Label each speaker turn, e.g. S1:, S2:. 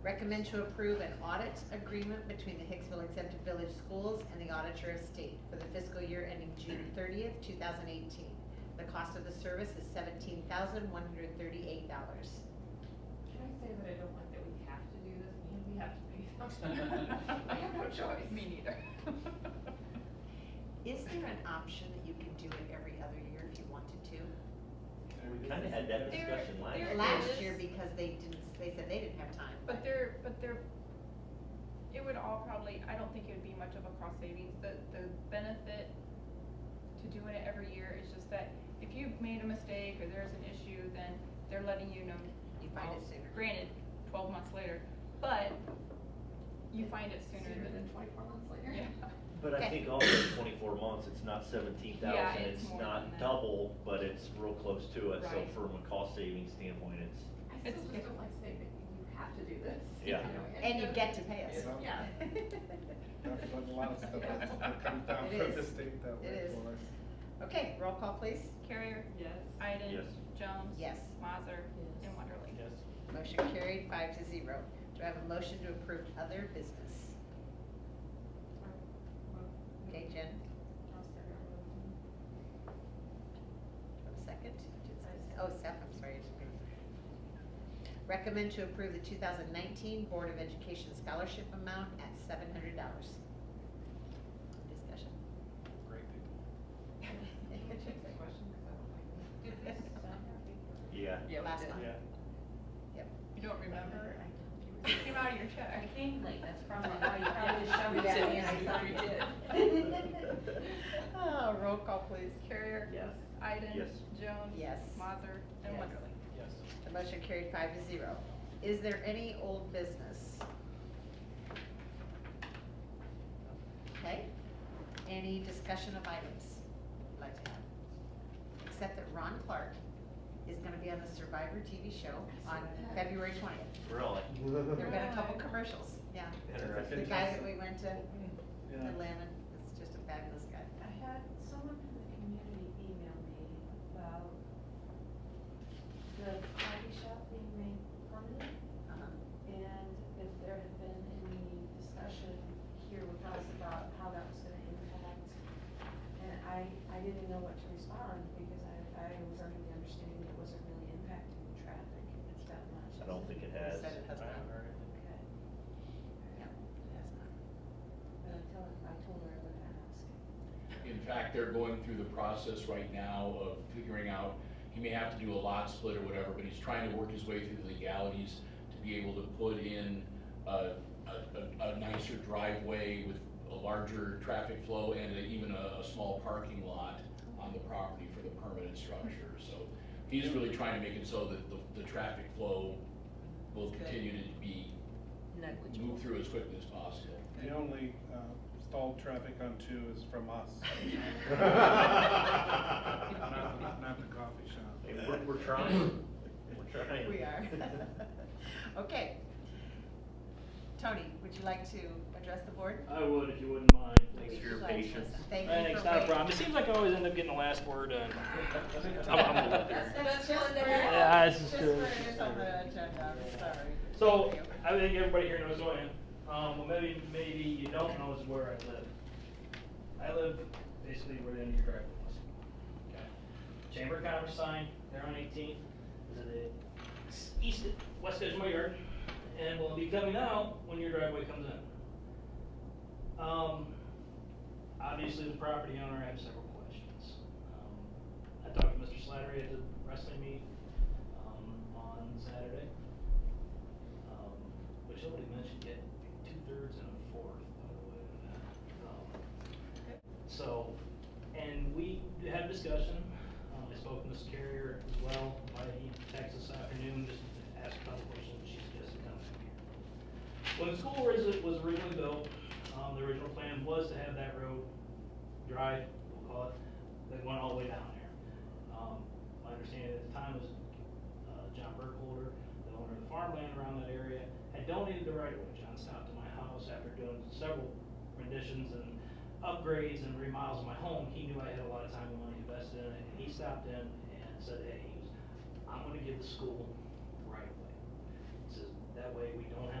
S1: Recommend to approve an audit agreement between the Hicksville Exempt Village Schools and the Auditor of State for the fiscal year ending June thirtieth, two thousand eighteen. The cost of the service is seventeen thousand one hundred thirty-eight dollars.
S2: Can I say that I don't like that we have to do this, and we have to pay them? I have no choice.
S3: Me neither.
S1: Is there an option that you can do it every other year if you wanted to?
S4: We kinda had that discussion last
S3: There-
S4: year.
S3: there
S1: Last
S3: is-
S1: year, because they didn't, they said they didn't have time.
S3: But there, but there, it would all probably, I don't think it would be much of a cost savings, the, the benefit to doing it every year is just that if you've made a mistake or there's an issue, then they're letting you know.
S1: You find it
S3: Oh,
S1: sooner.
S3: Granted, twelve months later, but you find it sooner
S2: Sooner than
S3: than,
S2: twenty-four months later.
S3: yeah.
S4: But I
S1: Okay.
S4: think also in twenty-four months, it's not seventeen
S3: Yeah,
S4: thousand,
S3: it's
S4: it's
S3: more than
S4: not
S3: that.
S4: double, but it's real close to it, so
S3: Right.
S4: from a cost savings standpoint, it's,
S2: I still
S3: It's-
S2: just don't like saying that you have to do this.
S4: Yeah.
S2: You know,
S1: And you get to pay us.
S5: Yeah.
S2: Yeah.
S5: That's a lot of stuff that's come down
S1: It
S5: from the
S1: is.
S5: state that
S1: It
S5: way
S1: is.
S5: for us.
S1: Okay, roll call please.
S3: Carrier,
S2: Yes.
S3: Iden,
S4: Yes.
S3: Jones.
S1: Yes.
S3: Mazer.
S2: Yes.
S3: And Wonderly.
S4: yes.
S1: Motion carried, five to zero. Do I have a motion to approve other business? Okay, Jen,
S2: I'll start over.
S1: do I have a second? Did Seth- Oh, Seth, I'm sorry. I didn't hear you. Recommend to approve the 2019 Board of Education Scholarship amount at $700. Discussion.
S5: Great people.
S2: Can we change the question, 'Cause I don't like it.
S1: Did this
S4: Yeah.
S3: Yeah, we
S1: Last
S3: did.
S1: month. Yep.
S3: You don't remember?
S2: I
S3: It Came out of your check.
S6: I came late, that's probably why you probably just showed me that and I thought you did.
S1: Oh, Roll call, please.
S3: Carrier.
S4: Yes.
S3: Iden.
S4: Yes.
S3: Jones.
S1: Yes.
S3: Mazer. And
S1: Yes.
S3: Wonderly.
S5: Yes.
S1: The motion carried five to zero. Is there any old business? Okay, any discussion of items you'd like to have? Except that Ron Clark is gonna be on the Survivor TV show on February twentieth.
S4: Really?
S1: There've been a couple commercials, yeah. The
S4: Interesting.
S1: guy that we went to
S5: Yeah.
S1: Atlanta, it's just a fabulous guy.
S6: I had someone from the community email me about the coffee shop being made permanent
S1: Uh-huh.
S6: and if there had been any discussion here with us about how that was gonna impact. And I, I didn't know what to respond because I, I was under the understanding it wasn't really impacting the traffic that much.
S4: I don't think it
S1: He
S4: has.
S1: said it has not.
S6: Okay.
S1: Yeah, it has not.
S6: But I told, I told her I would ask.
S7: In fact, they're going through the process right now of figuring out, he may have to do a lot split or whatever, but he's trying to work his way through the legalities to be able to put in a, a, a- a nicer driveway with a larger traffic flow and a- even a, a small parking lot on the property for the permanent structure. So he's really trying to make it so that the, the traffic flow will continue to be, moved through as quickly as possible.
S5: The only uh, stalled traffic on two is from us. Not, the- not the coffee
S4: Hey,
S5: shop.
S4: we're, we're trying, we're trying.
S1: We are. Okay. Tony, would you like to address the board?
S8: I would if you wouldn't mind.
S4: Thanks for
S1: Would
S4: your
S1: you like to-
S4: patience.
S1: Thank you
S8: Thanks,
S1: for
S8: not a
S1: waiting.
S8: problem. It seems like I always end up getting the last word done. I'm, I'm a little bit.
S1: That's just for-
S8: Yeah, this is
S1: just
S8: good.
S1: for it is on the agenda, I'm sorry.
S8: So,
S1: Thank you.
S8: I think everybody here knows who I am. Um, well, maybe, maybe you don't know is where I live. I live basically where the end of your driveway was. Okay. Chamber of Commerce sign, there on 18th, is at the s- east, west edge of my yard, and will be coming out when your driveway comes in. Um, obviously, the property owner, I have several questions. Um, I talked to Mr. Slattery at the wrestling meet, um, on Saturday um, which nobody mentioned yet, two thirds and a fourth, by the way. on that. Um, So, and we had a discussion, um, I spoke to Ms. Carrier as well, by text this afternoon, just to ask a couple questions, she suggested coming up here. When the school was, was originally built, um, the original plan was to have that road drive, we'll call it, that went all the way down there. Um, my understanding at the time was, uh, John Burkholder, the owner of the farmland around that area, had donated the right of way. John stopped at my house after doing several renditions and upgrades and remodels of my home. He knew I had a lot of time and money invested in it, and he stopped in and said, hey, he was, I'm gonna give the school right of way. He says, that way we don't have